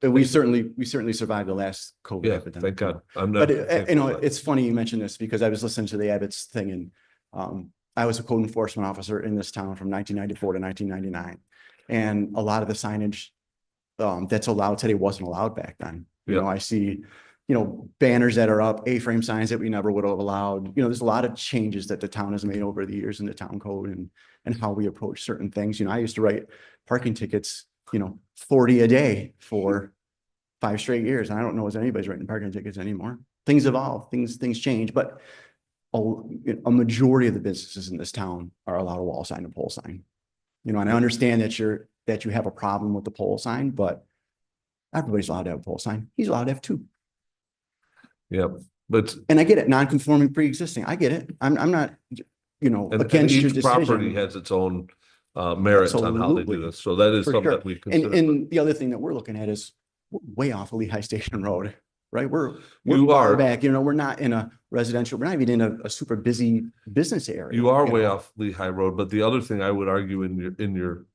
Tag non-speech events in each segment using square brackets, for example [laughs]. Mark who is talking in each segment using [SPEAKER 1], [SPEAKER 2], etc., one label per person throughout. [SPEAKER 1] But we certainly, we certainly survived the last COVID
[SPEAKER 2] Yeah,
[SPEAKER 1] epidemic.
[SPEAKER 2] thank God. I'm not.
[SPEAKER 1] But it-
[SPEAKER 2] thankful
[SPEAKER 1] you know,
[SPEAKER 2] for that.
[SPEAKER 1] it's funny you mentioned this because I was listening to the Abbott's thing and um, I was a code enforcement officer in this town from nineteen ninety-four to nineteen ninety-nine. And a lot of the signage um, that's allowed today wasn't allowed back then. You
[SPEAKER 2] Yeah.
[SPEAKER 1] know, I see, you know, banners that are up, A-frame signs that we never would have allowed. You know, there's a lot of changes that the town has made over the years in the town code and and how we approach certain things. You know, I used to write parking tickets, you know, forty a day for five straight years. And I don't know if anybody's writing parking tickets anymore. Things evolve, things, things change, but a, you know, a majority of the businesses in this town are allowed a wall sign and pole sign. You know, and I understand that you're, that you have a problem with the pole sign, but everybody's allowed to have a pole sign. He's allowed to have two.
[SPEAKER 2] Yeah, but
[SPEAKER 1] And I get it, non-conforming pre-existing. I get it. I'm, I'm not, you know,
[SPEAKER 2] and- and
[SPEAKER 1] against your
[SPEAKER 2] each property
[SPEAKER 1] decision.
[SPEAKER 2] has its own uh merits on how they do
[SPEAKER 1] Absolutely.
[SPEAKER 2] this. So that is
[SPEAKER 1] For
[SPEAKER 2] something
[SPEAKER 1] sure.
[SPEAKER 2] that we
[SPEAKER 1] And,
[SPEAKER 2] consider.
[SPEAKER 1] and the other thing that we're looking at is w- way off of Lehigh Station [laughs] Road, right? We're, we're
[SPEAKER 2] You
[SPEAKER 1] far
[SPEAKER 2] are,
[SPEAKER 1] back, you know, we're not in a residential, we're not even in a, a super busy business area.
[SPEAKER 2] you are way
[SPEAKER 1] know?
[SPEAKER 2] off Lehigh Road, but the other thing I would argue in your, in your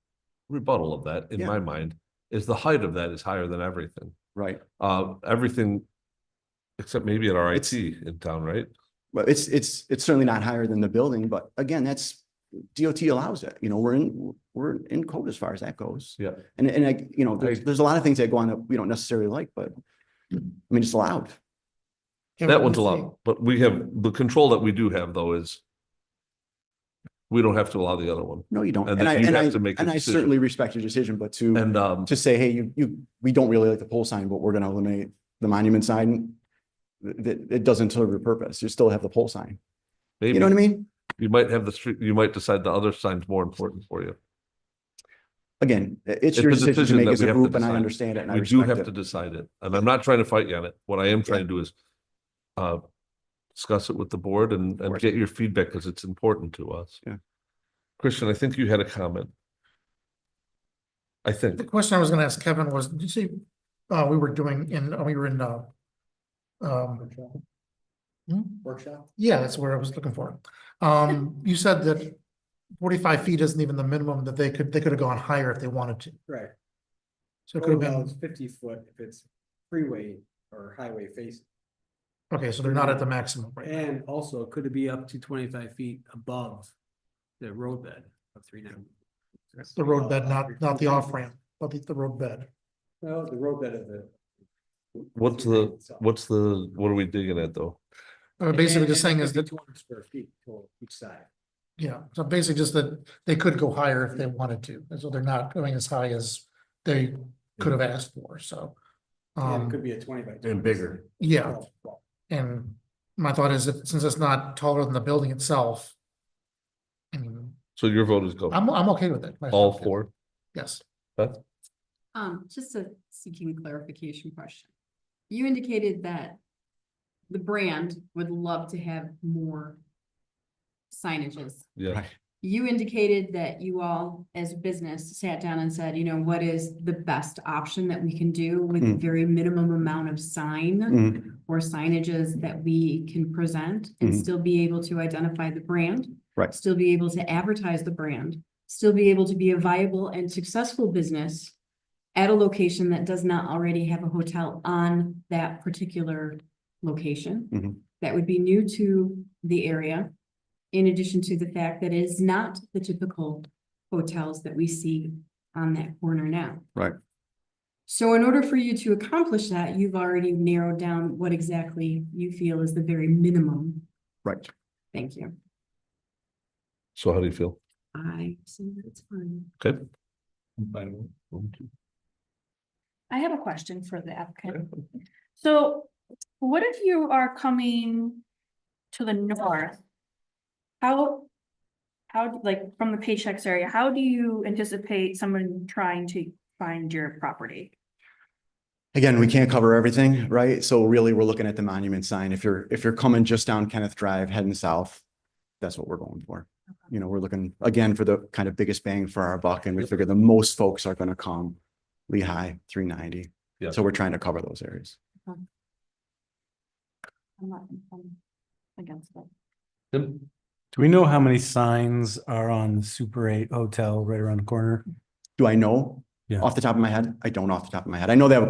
[SPEAKER 2] rebuttal of that, in
[SPEAKER 1] Yeah.
[SPEAKER 2] my mind, is the height of that is higher than everything.
[SPEAKER 1] Right.
[SPEAKER 2] Uh, everything except maybe at RIT
[SPEAKER 1] It's-
[SPEAKER 2] in town, right?
[SPEAKER 1] Well, it's, it's, it's certainly not higher than the building, but again, that's, DOT allows it, you know, we're in, we're in code as far as that goes.
[SPEAKER 2] Yeah.
[SPEAKER 1] And, and I, you know, there's, there's a lot of things that go on that we don't necessarily like, but I mean, it's allowed.
[SPEAKER 2] That one's allowed, but we have, the control that we do have though is we don't have to allow the other one.
[SPEAKER 1] No, you don't.
[SPEAKER 2] And
[SPEAKER 1] And I,
[SPEAKER 2] Uh, that you
[SPEAKER 1] and I,
[SPEAKER 2] have to make a
[SPEAKER 1] and I
[SPEAKER 2] decision.
[SPEAKER 1] certainly respect your decision, but to.
[SPEAKER 2] And um,
[SPEAKER 1] to say, hey, you, you, we don't really like the pole sign, but we're gonna eliminate the monument sign. th- th- it doesn't serve your purpose. You still have the pole sign. You
[SPEAKER 2] maybe
[SPEAKER 1] know what I mean?
[SPEAKER 2] you might have the street, you might decide the other sign's more important for you.
[SPEAKER 1] Again, i- it's
[SPEAKER 2] It's
[SPEAKER 1] your
[SPEAKER 2] a
[SPEAKER 1] decision to
[SPEAKER 2] decision
[SPEAKER 1] make
[SPEAKER 2] that
[SPEAKER 1] as
[SPEAKER 2] we
[SPEAKER 1] a
[SPEAKER 2] have to
[SPEAKER 1] group and I
[SPEAKER 2] decide.
[SPEAKER 1] understand it and I
[SPEAKER 2] We do
[SPEAKER 1] respect
[SPEAKER 2] have to
[SPEAKER 1] it.
[SPEAKER 2] decide it, and I'm not trying to fight you on it. What I am trying to do is uh, discuss it with the board and, and
[SPEAKER 1] course.
[SPEAKER 2] get your feedback because it's important to us.
[SPEAKER 1] Yeah.
[SPEAKER 2] Christian, I think you had a comment. I think,
[SPEAKER 3] The question I was gonna ask Kevin was, did you see, uh, we were doing in, uh, we were in, uh. Um. Workshop? Yeah, that's where I was looking for. Um, you said that forty-five feet isn't even the minimum that they could, they could have gone higher if they wanted to.
[SPEAKER 4] Right.
[SPEAKER 3] So it could have
[SPEAKER 4] Well,
[SPEAKER 3] been,
[SPEAKER 4] it's Fifty foot if it's freeway or highway facing.
[SPEAKER 3] okay, so they're not at the maximum right now.
[SPEAKER 4] And also, could it be up to twenty-five feet above the roadbed of three ninety?
[SPEAKER 3] The road bed, not, not the off-ramp, but the, the road bed.
[SPEAKER 4] No, the roadbed of the.
[SPEAKER 2] what's the, what's the, what are we digging at though?
[SPEAKER 3] Uh, basically just saying is that,
[SPEAKER 4] Two hundred square feet total each side.
[SPEAKER 3] yeah, so basically just that they could go higher if they wanted to, and so they're not going as high as they could have asked for, so.
[SPEAKER 4] And it
[SPEAKER 3] Um,
[SPEAKER 4] could be a twenty by.
[SPEAKER 2] and bigger.
[SPEAKER 3] yeah. And my thought is, if- since it's not taller than the building itself. I mean,
[SPEAKER 2] So your vote is go,
[SPEAKER 3] I'm, I'm okay with it. myself,
[SPEAKER 2] all
[SPEAKER 3] yeah.
[SPEAKER 2] four?
[SPEAKER 3] Yes,
[SPEAKER 2] Beth?
[SPEAKER 5] Um, just a seeking clarification question. You indicated that the brand would love to have more signages.
[SPEAKER 2] Yeah,
[SPEAKER 1] Right.
[SPEAKER 5] You indicated that you all, as a business, sat down and said, you know, what is the best option that we can do with the
[SPEAKER 1] Mm.
[SPEAKER 5] very minimum amount of sign
[SPEAKER 1] Mm,
[SPEAKER 5] or signages that we can present and
[SPEAKER 1] Mhm.
[SPEAKER 5] still be able to identify the brand?
[SPEAKER 1] Right.
[SPEAKER 5] Still be able to advertise the brand, still be able to be a viable and successful business at a location that does not already have a hotel on that particular
[SPEAKER 1] Mhm.
[SPEAKER 5] location. That would be new to the area. In addition to the fact that it is not the typical hotels that we see on that corner now.
[SPEAKER 1] Right.
[SPEAKER 5] So in order for you to accomplish that, you've already narrowed down what exactly you feel is the very minimum.
[SPEAKER 1] Right.
[SPEAKER 5] Thank you.
[SPEAKER 2] so how do you feel?
[SPEAKER 5] I see that's fine.
[SPEAKER 2] Okay.
[SPEAKER 6] I have a question for the applicant. So what if you are coming to the north? How, how, like, from the Paychex area, how do you anticipate someone trying to find your property?
[SPEAKER 1] Again, we can't cover everything, right? So really, we're looking at the monument sign. If you're, if you're coming just down Kenneth Drive, heading south, that's what we're going for. You know, we're looking again for the kind of biggest bang for our buck and we figure the most folks are gonna come Lehigh, three ninety.
[SPEAKER 2] Yeah.
[SPEAKER 1] So we're trying to cover those areas.
[SPEAKER 6] I'm not I'm against that.
[SPEAKER 2] Tim?
[SPEAKER 7] Do we know how many signs are on the Super Eight Hotel right around the corner?
[SPEAKER 1] Do I know?
[SPEAKER 7] Yeah.
[SPEAKER 1] Off the top of my head? I don't off the top of my head. I know they have a